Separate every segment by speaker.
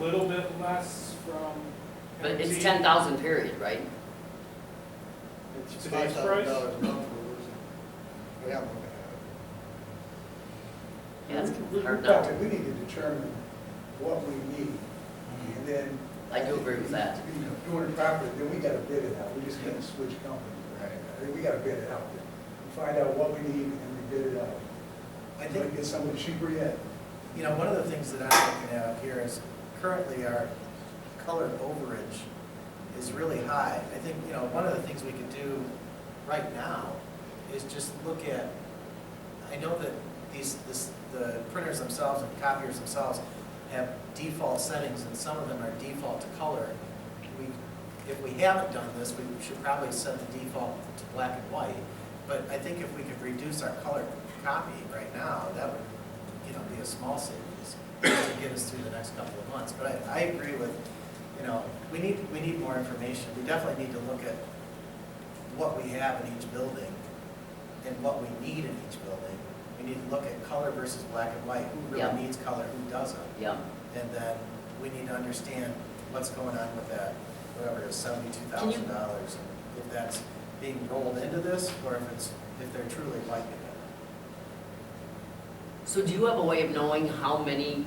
Speaker 1: little bit less from.
Speaker 2: But it's
Speaker 1: energy.
Speaker 2: ten thousand period, right?
Speaker 1: It's
Speaker 3: It's
Speaker 1: Today's
Speaker 3: five
Speaker 1: price?
Speaker 3: thousand dollars a month we're losing. We haven't looked at
Speaker 2: Yeah, it's
Speaker 3: it. We-
Speaker 2: hard
Speaker 3: we
Speaker 2: not
Speaker 3: probably- We need to determine what we need, and then.
Speaker 2: I do agree with that.
Speaker 3: To be Doing it properly, then we gotta bid it out, we just can't switch companies.
Speaker 2: Right.
Speaker 3: I mean, We gotta bid it out, We find out what we need and we bid it out.
Speaker 4: I
Speaker 3: Might
Speaker 4: think,
Speaker 3: get someone cheaper yet.
Speaker 4: you know, one of the things that I'm looking at up here is currently our colored overage is really high. I think, you know, one of the things we could do right now is just look at, I know that these, this, the printers themselves and copiers themselves have default settings and some of them are default to color. We, if we haven't done this, we should probably set the default to black and white. But I think if we could reduce our color copy right now, that would, you know, be a small savings to get us through the next couple of months. But I, I agree with, you know, we need, we need more information. We definitely need to look at what we have in each building and what we need in each building. We need to look at color versus black and white, who
Speaker 2: Yeah.
Speaker 4: really needs color, who doesn't.
Speaker 2: Yeah,
Speaker 4: And then we need to understand what's going on with that, whatever it is, seventy-two thousand dollars. If that's being rolled into this, or if it's, if they're truly liking it.
Speaker 2: so do you have a way of knowing how many,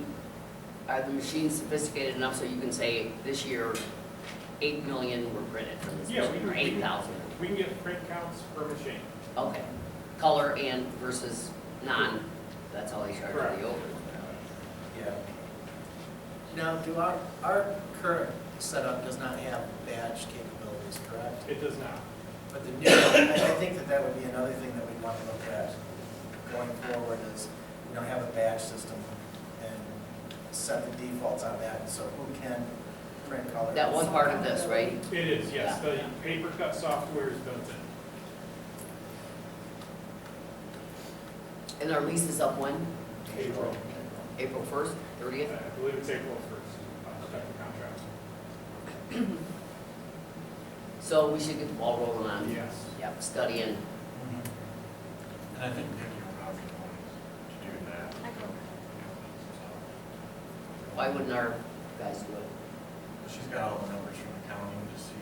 Speaker 2: are the machines sophisticated enough so you can say, this year, eight million were printed from this
Speaker 1: Yeah, we
Speaker 2: machine,
Speaker 1: can-
Speaker 2: or
Speaker 1: we can-
Speaker 2: eight thousand?
Speaker 1: We can get print counts per machine.
Speaker 2: Okay, color and versus non, that's all they charge for
Speaker 1: Correct.
Speaker 2: the over.
Speaker 4: Yeah. Now, do our, our current setup does not have badge capabilities, correct?
Speaker 1: It does not.
Speaker 4: But the new, I I think that that would be another thing that we'd want to look at going forward is, you know, have a badge system and set the defaults on that, so who can print color.
Speaker 2: That was part of this, right?
Speaker 1: It is, yes,
Speaker 2: Yeah.
Speaker 1: the paper cut software is built in.
Speaker 2: And our lease is up when?
Speaker 3: April.
Speaker 2: April first, thirtieth?
Speaker 1: I believe it's April first, uh, the contract.
Speaker 2: So we should get the ball rolling on.
Speaker 1: Yes.
Speaker 2: Yep, studying.
Speaker 5: And I think Vicky would probably want to do that.
Speaker 2: Why wouldn't our guys do it?
Speaker 5: She's got all the numbers from accounting to see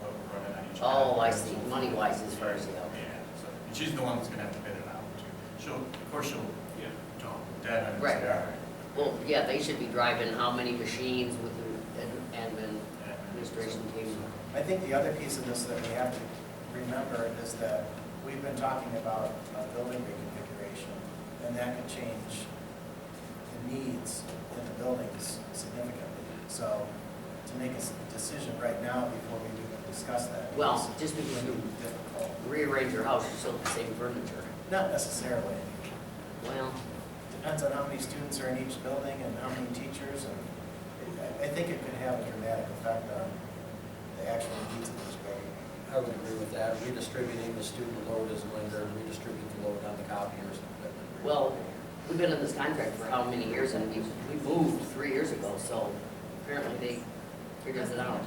Speaker 5: what we're running on each.
Speaker 2: Oh, I see,
Speaker 5: category.
Speaker 2: money wise as far as, yeah, okay.
Speaker 5: Yeah, so, and she's the one that's gonna have to bid it out too. She'll, of course, she'll
Speaker 1: Yeah.
Speaker 5: dump that and
Speaker 2: Right.
Speaker 5: say, all right.
Speaker 2: Well, yeah, they should be driving how many machines with the ad- admin
Speaker 5: yeah.
Speaker 2: administration team.
Speaker 4: I think the other piece of this that we have to remember is that we've been talking about uh, building reconfiguration, and that could change the needs in the buildings significantly. So to make a s- decision right now before we even discuss that.
Speaker 2: Well, just
Speaker 4: is
Speaker 2: because you
Speaker 4: gonna be difficult.
Speaker 2: rearrange your house, you still have the same furniture.
Speaker 4: Not necessarily.
Speaker 2: Well,
Speaker 4: Depends on how many students are in each building and how many teachers, and I- I think it could have a dramatic effect on the actual needs of this building.
Speaker 6: I would agree with that, redistributing the student load is linear, redistribute the load on the copiers.
Speaker 2: well, we've been in this contract for how many years and we, we moved three years ago, so apparently they figured it out.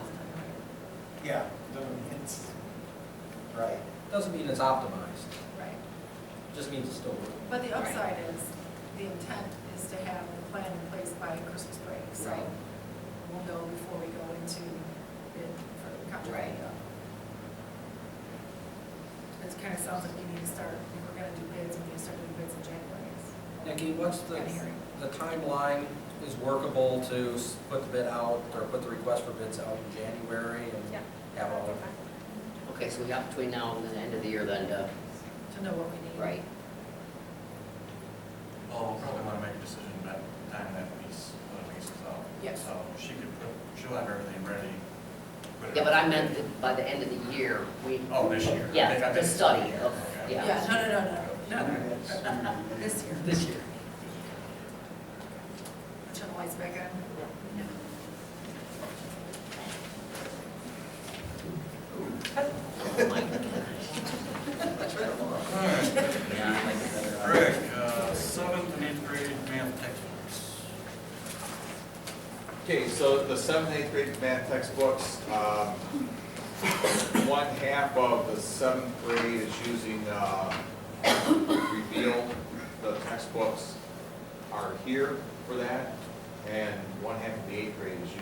Speaker 4: Yeah, doesn't- it's, right.
Speaker 6: Doesn't mean it's optimized,
Speaker 2: Right.
Speaker 6: just means it's still working.
Speaker 7: But the upside is, the intent is to have the plan in place by Christmas break, so
Speaker 2: Right.
Speaker 7: we'll know before we go into bid for the
Speaker 2: Right.
Speaker 7: contract. It kind of sounds like we need to start, if we're gonna do bids, we need to start doing bids in January.
Speaker 6: Nikki, what's the,
Speaker 7: Kinda hearing.
Speaker 6: the timeline is workable to s- put the bid out, or put the request for bids out in January and have all of
Speaker 2: Okay, so we got between now and the end of the year then to,
Speaker 7: To know what we need.
Speaker 2: right,
Speaker 5: Well, we'll probably wanna make a decision by the time that lease, when the lease is up.
Speaker 7: Yes.
Speaker 5: So she could put, she'll have everything ready. put it
Speaker 2: yeah, but
Speaker 5: out.
Speaker 2: I meant that by the end of the year, we,
Speaker 5: Oh, this year. I think I
Speaker 2: yeah, the
Speaker 5: meant-
Speaker 2: study of,
Speaker 5: Okay.
Speaker 2: yeah.
Speaker 7: Yeah, no, no, no, no, no, this year.
Speaker 2: This year.
Speaker 7: Turn the lights back on. No.
Speaker 2: Oh my gosh.
Speaker 6: Yeah, I like it better.
Speaker 5: Rick, uh, seventh and eighth grade math textbooks.
Speaker 8: Okay, so the seventh, eighth grade math textbooks, um, one half of the seventh grade is using, uh, reveal. The textbooks are here for that. and one half of the eighth grade is using